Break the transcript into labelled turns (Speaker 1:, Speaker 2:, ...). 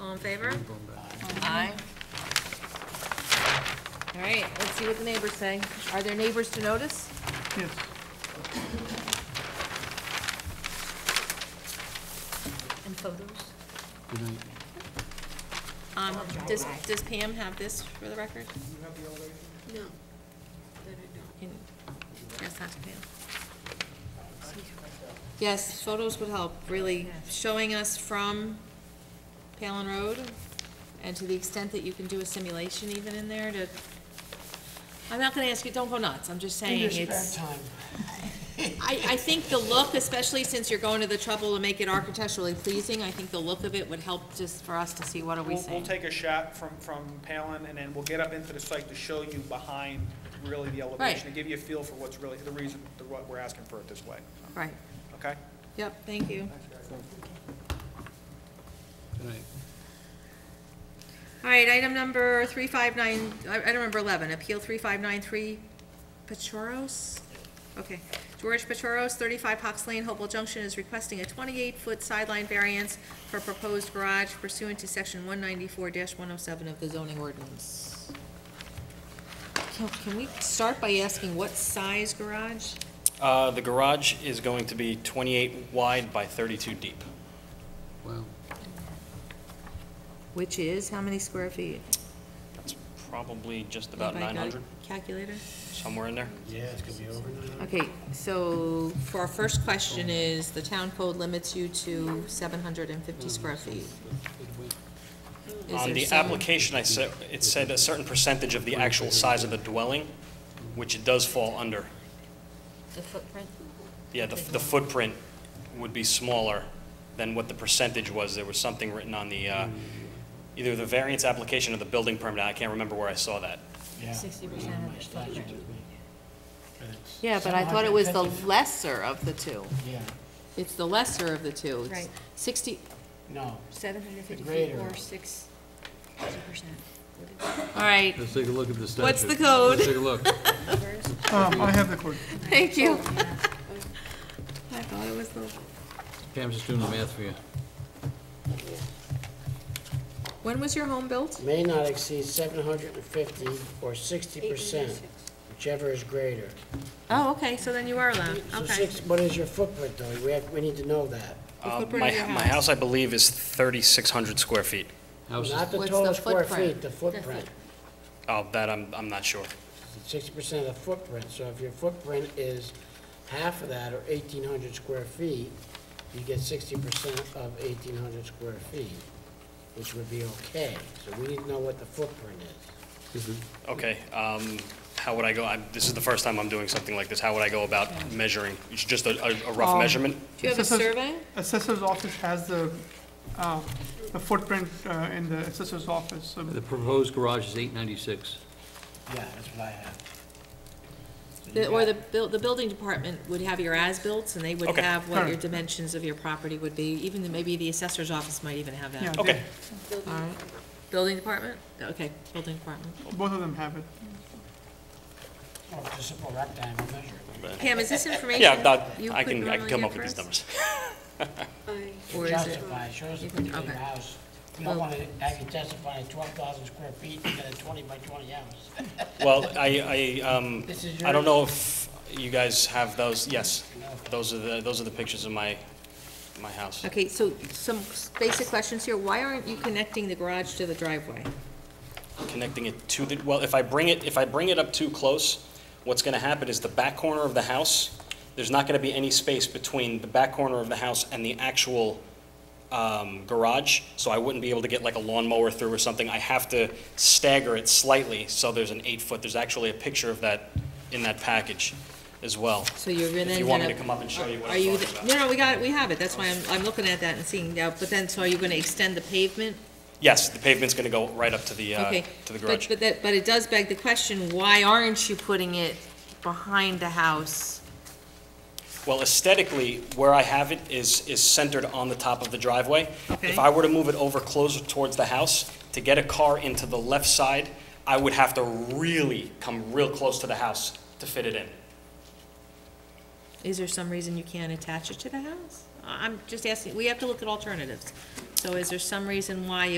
Speaker 1: All in favor?
Speaker 2: Aye. All right, let's see what the neighbors say. Are there neighbors to notice?
Speaker 3: Yes.
Speaker 1: And photos?
Speaker 3: Good night.
Speaker 2: Um, does, does Pam have this for the record?
Speaker 1: No. That I don't.
Speaker 2: Can- Yes, that's Pam. Yes, photos would help, really, showing us from Palin Road, and to the extent that you can do a simulation even in there to, I'm not gonna ask you, don't go nuts, I'm just saying it's. I, I think the look, especially since you're going to the trouble to make it architecturally pleasing, I think the look of it would help just for us to see what are we
Speaker 4: We'll, we'll
Speaker 2: saying.
Speaker 4: take a shot from, from Palin, and then we'll get up into the site to show you behind really the
Speaker 2: Right.
Speaker 4: elevation, to give you a feel for what's really, the reason, the- what we're asking for it this way,
Speaker 2: Right,
Speaker 4: okay?
Speaker 2: yep, thank you.
Speaker 3: Good night.
Speaker 2: All right, item number three five nine, item number eleven, appeal three five nine three, Pachoros? Okay, George Pachoros, thirty-five Hawks Lane, Hopewell Junction, is requesting a twenty-eight foot sideline variance for proposed garage pursuant to section one ninety-four one oh seven of the zoning ordinance. Can, can we start by asking what size garage?
Speaker 5: Uh, The garage is going to be 28 wide by 32 deep.
Speaker 3: Wow.
Speaker 2: Which is, how many square feet?
Speaker 5: That's probably just about
Speaker 2: Anybody got a
Speaker 5: 900,
Speaker 2: Calculator?
Speaker 5: somewhere in there.
Speaker 2: Okay, so for our first question is, the town code limits you to seven hundred and fifty square feet. Is
Speaker 5: On
Speaker 2: there
Speaker 5: the
Speaker 2: some-
Speaker 5: application, I said, it said a certain percentage of the actual size of the dwelling, which it does fall under.
Speaker 1: The footprint?
Speaker 5: Yeah, the the footprint would be smaller than what the percentage was. There was something written on the, uh, either the variance application or the building permit, I can't remember where I saw that.
Speaker 1: Sixty percent of the footprint.
Speaker 2: Yeah, but I thought it was the lesser of the two.
Speaker 6: Yeah,
Speaker 2: It's the lesser of the two. It's
Speaker 1: Right.
Speaker 2: Sixty,
Speaker 6: no,
Speaker 1: Seven hundred fifty feet
Speaker 6: Greater.
Speaker 1: or six, sixty percent.
Speaker 2: all right,
Speaker 3: Let's take a look at the statute.
Speaker 2: What's the code?
Speaker 3: Let's take a look.
Speaker 7: Um, I have the code.
Speaker 2: thank you. I thought it was the,
Speaker 3: Pam's just doing the math for you.
Speaker 2: when was your home built?
Speaker 6: may not exceed seven hundred and fifty or sixty percent, whichever is greater.
Speaker 2: Oh, okay, so then you are allowed,
Speaker 6: So
Speaker 2: okay.
Speaker 6: six, what is your footprint though? We have, we need to know that.
Speaker 2: The
Speaker 5: Uh,
Speaker 2: footprint
Speaker 5: My
Speaker 2: of your
Speaker 5: my house, I believe, is 3,600 square feet.
Speaker 3: House is,
Speaker 6: Not the
Speaker 2: What's the
Speaker 6: total square
Speaker 2: footprint?
Speaker 6: feet, the footprint.
Speaker 5: Oh, that I'm I'm not sure.
Speaker 6: Sixty percent of the footprint, so if your footprint is half of that or eighteen hundred square feet, you get sixty percent of eighteen hundred square feet, which would be okay. So we need to know what the footprint is.
Speaker 5: Okay, um, how would I go, I'm- this is the first time I'm doing something like this, how would I go about measuring? It's Just a a- a rough
Speaker 7: Um,
Speaker 5: measurement?
Speaker 2: Do you have a
Speaker 7: Assessors-
Speaker 2: survey?
Speaker 7: Assessor's office has the, uh, the footprint uh, in the assessor's office, so
Speaker 3: the proposed garage is 896.
Speaker 6: Yeah, that's what I have. So you
Speaker 2: The- Or
Speaker 6: got-
Speaker 2: the, buil- the building department would have your as-built, and they would
Speaker 5: Okay.
Speaker 2: have what your
Speaker 7: Alright.
Speaker 2: dimensions of your property would be, even, the- maybe the assessor's office might even have
Speaker 7: Yeah,
Speaker 2: that.
Speaker 5: Okay,
Speaker 2: Alright. Building department? Okay, building department.
Speaker 7: they- both of them have it.
Speaker 6: Oh, it's a simple rectangle measure.
Speaker 2: Pam, is this information?
Speaker 5: yeah, that-
Speaker 2: you
Speaker 5: I
Speaker 2: could
Speaker 5: can, I can
Speaker 2: normally
Speaker 5: come
Speaker 2: get
Speaker 5: up with
Speaker 2: for
Speaker 5: these
Speaker 2: us?
Speaker 5: numbers.
Speaker 2: Or is it,
Speaker 6: Justify, show us the
Speaker 2: You can-
Speaker 6: picture of your
Speaker 2: okay.
Speaker 6: house. You don't
Speaker 2: Well-
Speaker 6: want to have you testify at twelve thousand square feet, you got a twenty by twenty house.
Speaker 5: Well, I, I, um,
Speaker 6: This is
Speaker 5: I don't
Speaker 6: yours?
Speaker 5: know if you guys have those, yes, those are the, those are the pictures of my, my house.
Speaker 2: okay, so some s- basic questions here, why aren't you connecting the garage to the driveway?
Speaker 5: Connecting it to the, well, if I bring it, if I bring it up too close, what's gonna happen is the back corner of the house, there's not gonna be any space between the back corner of the house and the actual, um, garage, so I wouldn't be able to get like a lawnmower through or something. I have to stagger it slightly, so there's an eight-foot, there's actually a picture of that in that package as well.
Speaker 2: So you're gonna.
Speaker 5: If you
Speaker 2: end
Speaker 5: want me
Speaker 2: up-
Speaker 5: to come up and show you what
Speaker 2: Are
Speaker 5: I'm
Speaker 2: you,
Speaker 5: talking
Speaker 2: th-
Speaker 5: about.
Speaker 2: no, no, we got, it. we have it, that's why I'm, I'm looking at that and seeing, now. but then, so are you gonna extend the pavement?
Speaker 5: Yes, the pavement's going to go right up to the, uh,
Speaker 2: Okay,
Speaker 5: to the
Speaker 2: but,
Speaker 5: garage.
Speaker 2: but that, but it does beg the question, why aren't you putting it behind the house?
Speaker 5: Well, aesthetically, where I have it is, is centered on the top of the driveway.
Speaker 2: Okay.
Speaker 5: If I were to move it over closer towards the house, to get a car into the left side, I would have to really come real close to the house to fit it in.
Speaker 2: Is there some reason you can't attach it to the house? I- I'm just asking, we have to look at alternatives. So is there some reason why